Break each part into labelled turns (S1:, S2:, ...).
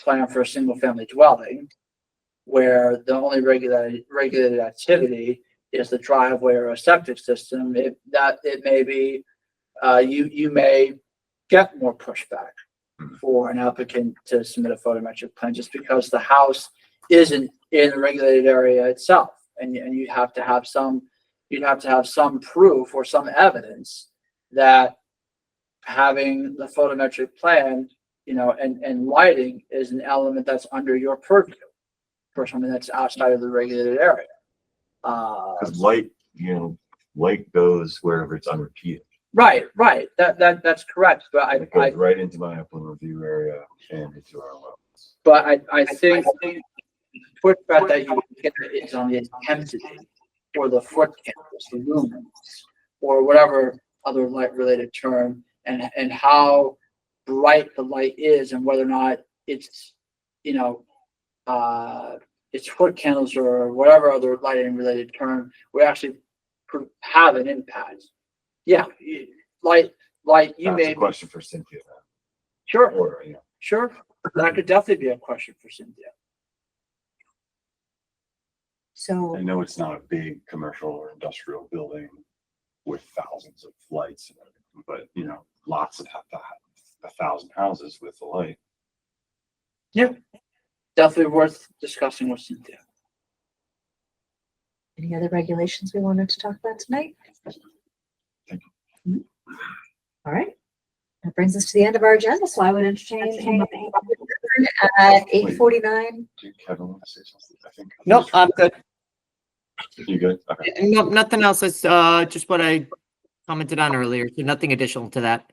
S1: plan for a single family dwelling. Where the only regulated, regulated activity is the driveway or a septic system, if that, it may be, uh, you, you may get more pushback. For an applicant to submit a photometric plan, just because the house isn't in the regulated area itself. And, you- and you have to have some, you'd have to have some proof or some evidence that having the photometric plan, you know, and, and lighting is an element that's under your purview for something that's outside of the regulated area. Uh,
S2: Cause light, you know, light goes wherever it's unrepeated.
S1: right, right. That, that, that's correct. But I,
S2: It
S1: I,
S2: goes right into my upland review area and into our well.
S1: but I, I think the pushback that you get is on the intensity or the foot candles, the lumens, or whatever other light related term and, and how bright the light is and whether or not it's, you know, uh, it's foot candles or whatever other lighting related term would actually pr- have an impact. Yeah, you- light, light, you
S2: That's a
S1: may, be-
S2: question for Cynthia,
S1: sure.
S2: or, you know,
S1: Sure, that could definitely be a question for Cynthia.
S2: I
S3: So,
S2: know it's not a big commercial or industrial building with thousands of lights, and everything, but you know, lots of a, a thousand houses with the light.
S1: Definitely worth discussing with Cynthia.
S3: any other regulations we wanted to talk about tonight?
S2: Thank
S3: Mm. All right, that brings us to the end of our agenda, so I would entertain a motion at eight forty-nine.
S2: Do Kevin want to say something? I think.
S4: Nope, I'm good.
S2: You good? Okay.
S4: No, nothing else. It's, uh, just what I commented on earlier. So nothing additional to that.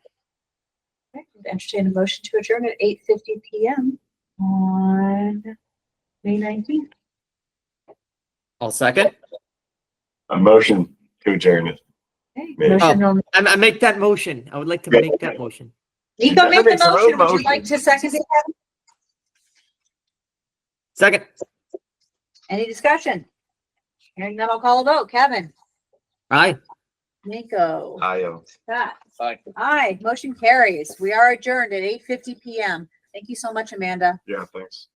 S3: Entertain a motion to adjourn at eight fifty PM on May nineteenth.
S4: I'll second.
S2: A motion to adjourn it.
S3: Okay,
S2: May-
S3: motion on,
S4: I, I make that motion. I would like to
S2: Yeah.
S4: make that motion.
S3: Nico made the
S2: Everybody's own
S3: motion, would you
S2: motion.
S3: like to second it?
S4: Second,
S3: Any discussion? Hearing none, I'll call a vote, Kevin,
S4: aye.
S3: Nico,
S2: I
S1: um,
S2: am.
S3: Scott.
S1: Bye.
S3: Aye, motion carries. We are adjourned at eight fifty PM. Thank you so much, Amanda.
S2: Yeah, thanks.